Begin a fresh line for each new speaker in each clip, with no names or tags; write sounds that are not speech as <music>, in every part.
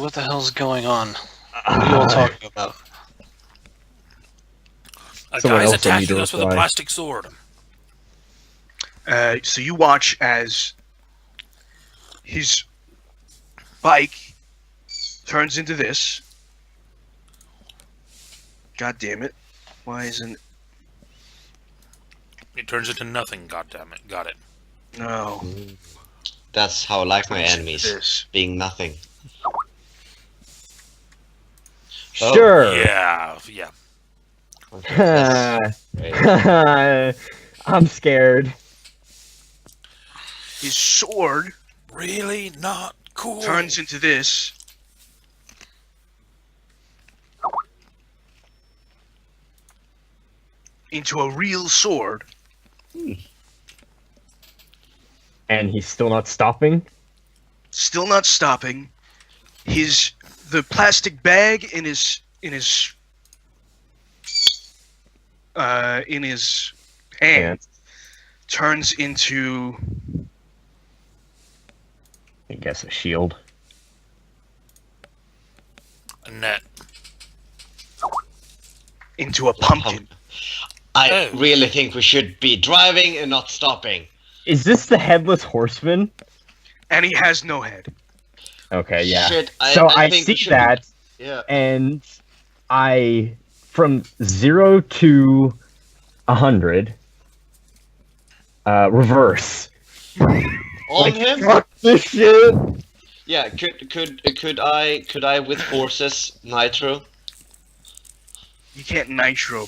What the hell's going on? What are you all
<laughs>
talking about?
A
Someone
guy's
else will need to
attacking us with a
reply.
plastic sword.
Uh, so you watch as his bike turns into this. God damn it. Why isn't.
It turns into nothing, goddammit. Got it.
No.
That's how I like my
Turns into
enemies,
This.
being nothing. Oh,
Sure.
Yeah, yeah.
Okay, that's great.
<laughs> I'm scared.
His sword
Really not cool.
turns into this. Into a real sword.
And he's still not stopping.
still not stopping. His the plastic bag in his in his uh, in his hand
And
turns into
I guess a shield.
a net.
into a pumpkin.
<laughs> I
Oh.
really think we should be driving and not stopping.
Is this the headless horseman?
And he has no head.
Okay, Uh, yeah.
Shit, I,
so
I,
I,
think we
see
should-
that,
Yeah.
and I from zero to a hundred. Uh, reverse.
On him?
Fuck this shit.
Yeah. Could could could I could I with forces nitro?
You can't nitro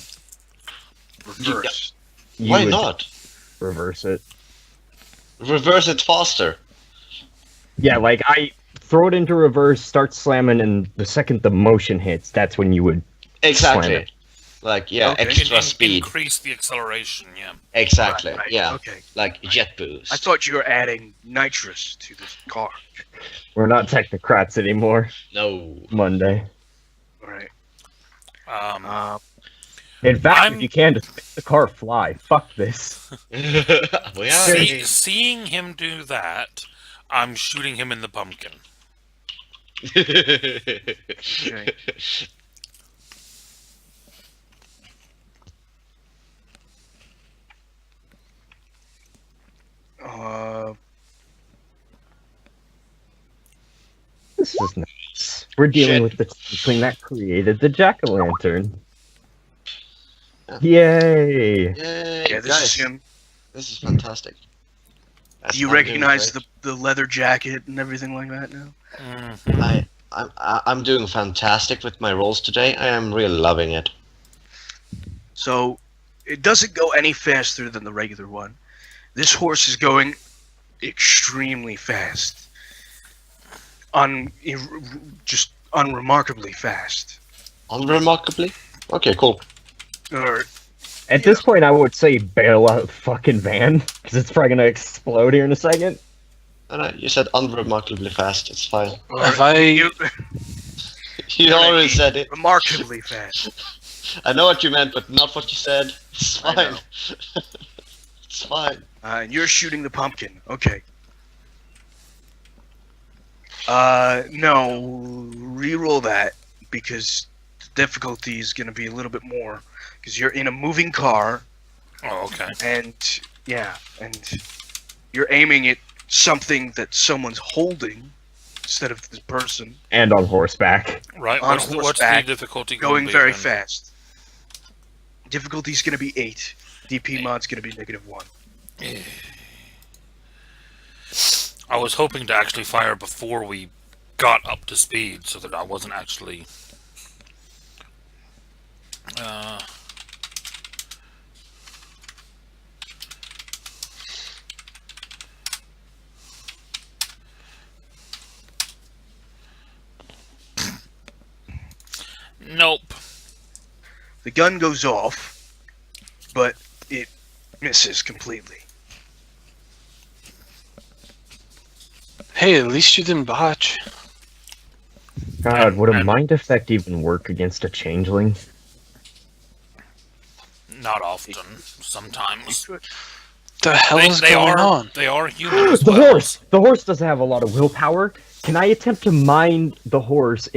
reverse.
You
Why
would
not?
reverse it?
Reverse it faster.
Yeah, like I throw it into reverse, start slamming, and the second the motion hits, that's when you would. Slam
Exactly.
it.
Like yeah,
Okay.
extra
In- in-
speed.
Increase the acceleration, yeah.
Exactly.
Right, right,
Yeah.
Okay.
Like jet boost.
I thought you were adding nitrous to this car.
We're not technocrats anymore.
no.
<laughs>
Monday.
All right.
Um,
Uh,
In fact,
I'm-
if you can, just make the car fly. Fuck
<laughs>
this.
we are.
see- seeing him do that, I'm shooting him in the pumpkin.
<laughs>
okay. Uh,
This is nice. We're dealing
Shit.
with the thing that created the jack o' lantern. Yay!
Yay,
yeah, this is
guys,
him.
This is fantastic. That's
Do you
what I'm doing
recognize
great.
the, the leather jacket and everything like that now?
Mhm.
I, I'm, I- I'm doing fantastic with my rolls today. I am really loving it.
So it doesn't go any faster than the regular one. This horse is going extremely fast. Un, ir- just unremarkably fast.
Unremarkably. Okay, cool.
Or
At this point, I would say bail out the fucking van because it's probably gonna explode here in a second.
And I, you said unremarkably fast. It's fine. <laughs>
If I
you, <laughs>
You
Alright,
already
Pete.
said it.
remarkably fast.
I know what you meant, but not what you said. It's
I
fine. <laughs>
know.
it's fine.
Uh, and you're shooting the pumpkin. Okay. Uh, no, re-roll that because the difficulty is going to be a little bit more because you're in a moving car
Oh, okay.
and yeah, and you're aiming at something that someone's holding instead of this person
And on horseback.
Right,
On
what's the, what's the
horseback,
difficulty gonna
going
be
very
then?
fast. Difficulty's going to be eight. DP mod's going to be negative one.
I was hoping to actually fire before we got up to speed so that I wasn't actually. Uh, nope.
The gun goes off, but it misses completely.
hey, at least you didn't botch.
God, would a
And-
mind effect even work against a changeling?
Not often. Sometimes.
The hell
They,
is
they
going
are,
on?
they are human as
<gasps> the
well.
horse. The horse doesn't have a lot of willpower, Can I attempt to mind the horse